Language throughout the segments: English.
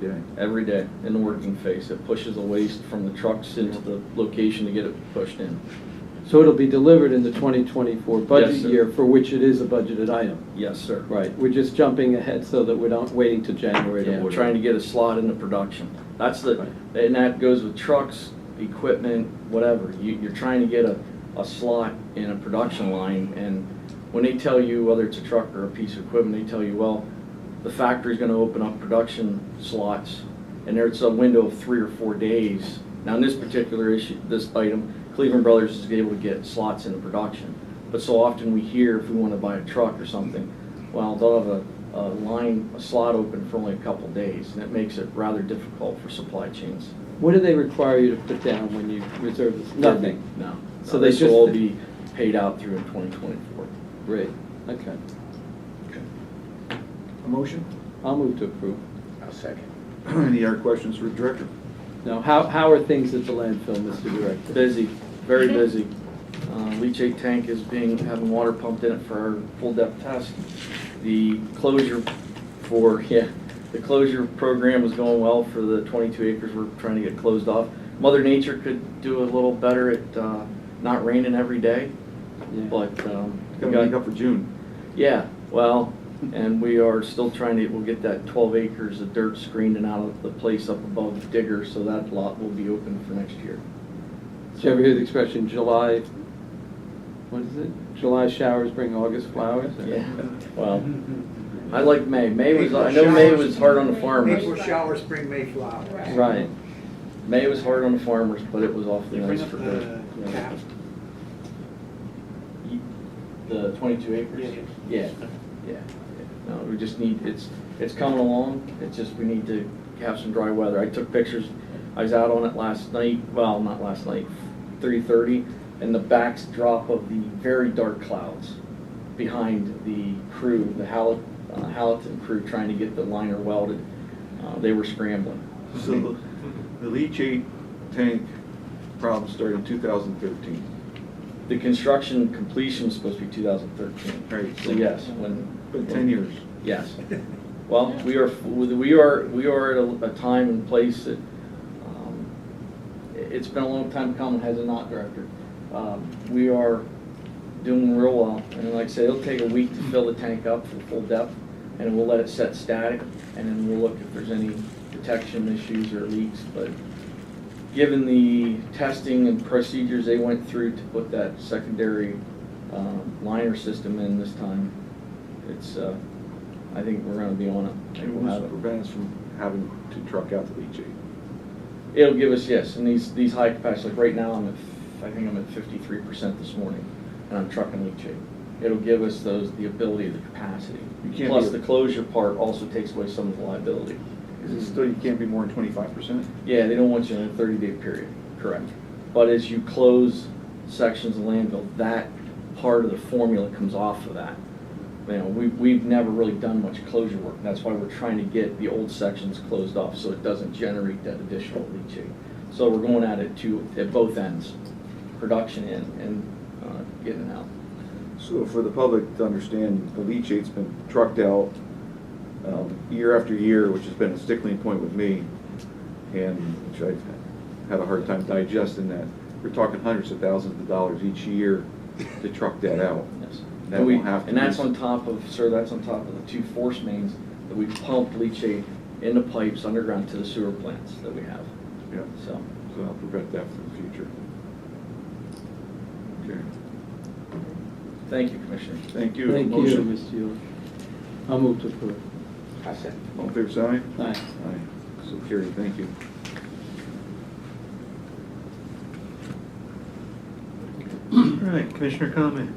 day. every day in the working phase. It pushes the waste from the trucks into the location to get it pushed in. So it'll be delivered in the 2024 budget Yes, sir. year, for which it is a budgeted item? Yes, sir. Right, we're just jumping ahead so that we're not waiting till January to Yeah, order. trying to get a slot into production. That's the, and that goes with trucks, equipment, whatever. You, you're trying to get a, a slot in a production line, and when they tell you whether it's a truck or a piece of equipment, they tell you, well, the factory's gonna open up production slots, and there's a window of three or four days. Now, in this particular issue, this item, Cleveland Brothers is able to get slots into production. But so often we hear if we wanna buy a truck or something, well, they'll have a, a line, a slot open for only a couple days, and it makes it rather difficult for supply chains. What do they require you to put down when you reserve this? Nothing? No. So So they this will just- all be paid out through in twenty twenty-four. Great, okay. A motion? I'll move to approve. I'll second. Any other questions for the director? Now, how, how are things at the landfill, Mr. Director? Busy, very busy. Uh, Leachate tank is being, having water pumped in it for our full depth test. The closure for, yeah, the closure program is going well for the 22 acres we're trying to get closed off. Mother Nature could do a little better at uh, not raining every day, Yeah. but. um, we Got to got- make up for June. Yeah, well, and we are still trying to, we'll get that 12 acres of dirt screened and out of the place up above Digger, so that lot will be open for next year. Did you ever hear the expression, July, what is it? July showers bring August flowers? or- Yeah, well, I like May. May was, I know May was hard on the April farmers. showers bring May flowers. Right. Right, May was hard on the farmers, but it was awfully You bring nice up for the. the tap. The 22 acres? Yeah, yeah. No, we just need, it's, it's coming along. It's just, we need to have some dry weather. I took pictures. I was out on it last night, well, not last night, 3:30, and the backdrop of the very dark clouds behind the crew, the Hall- uh, Hallaton crew trying to get the liner welded. Uh, They were scrambling. So the- the leachate tank problem started in 2013. The construction completion was supposed to be 2013. Right. So yes, when. Been 10 years. Yes. Well, we are, we are, we are at a, a time and place that, um, it- it's been a long time coming, has it not, Director? Um, we are doing real well, and like I said, it'll take a week to fill the tank up for full depth, and we'll let it set static, and then we'll look if there's any detection issues or leaks, but given the testing and procedures they went through to put that secondary, um, liner system in this time, it's, uh, I think we're gonna be on it. I think It we'll have was it. prevent us from having to truck out the leachate. It'll give us, yes, and these, these high capacities, like right now, I'm at, f- I think I'm at fifty-three percent this morning, and I'm trucking leachate. It'll give us those, the ability, the capacity. You can't Plus, do the it. closure part also takes away some of the liability. Is Mm-hmm. it still, you can't be more than 25%? Yeah, they don't want you in a thirty-day period, correct. But as you close sections of landfill, that part of the formula comes off of that. You know, we, we've never really done much closure work, that's why we're trying to get the old sections closed off, so it doesn't generate that additional leachate. So we're going at it to, at both ends, production in and, uh, getting out. So for the public to understand, the leachate's been trucked out um, year after year, which has been a stickling point with me, and which I've had a hard time digesting that. We're talking hundreds of thousands of dollars each year to truck that out. Yes. That And we- will have to And that's be- on top of, sir, that's on top of the two force mains that we pumped leachate into pipes underground to the sewer plants that we have, Yeah, so. so I'll prevent that from the future. Okay, Thank you, Commissioner. thank you. thank you, Motion. Mr. Yule. I'll move to approve. I second. All fair side? Aye. Aye. So carried, thank you. All right, commissioner comment?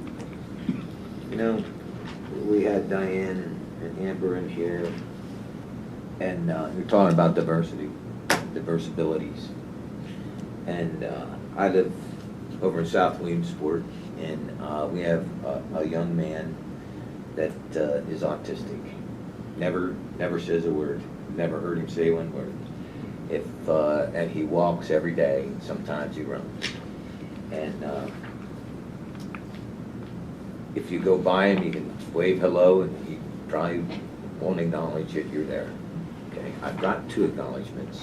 You know, we had Diane and Amber in here, and uh, you're talking about diversity, diverse abilities. And uh, I live over in South Williamsport, and uh, we have a- a young man that uh, is autistic. Never, never says a word, never heard him say one word. If, uh, and he walks every day, sometimes he runs. And uh, if you go by him, you can wave hello, and he probably won't acknowledge that you're there. Okay? I've got two acknowledgements.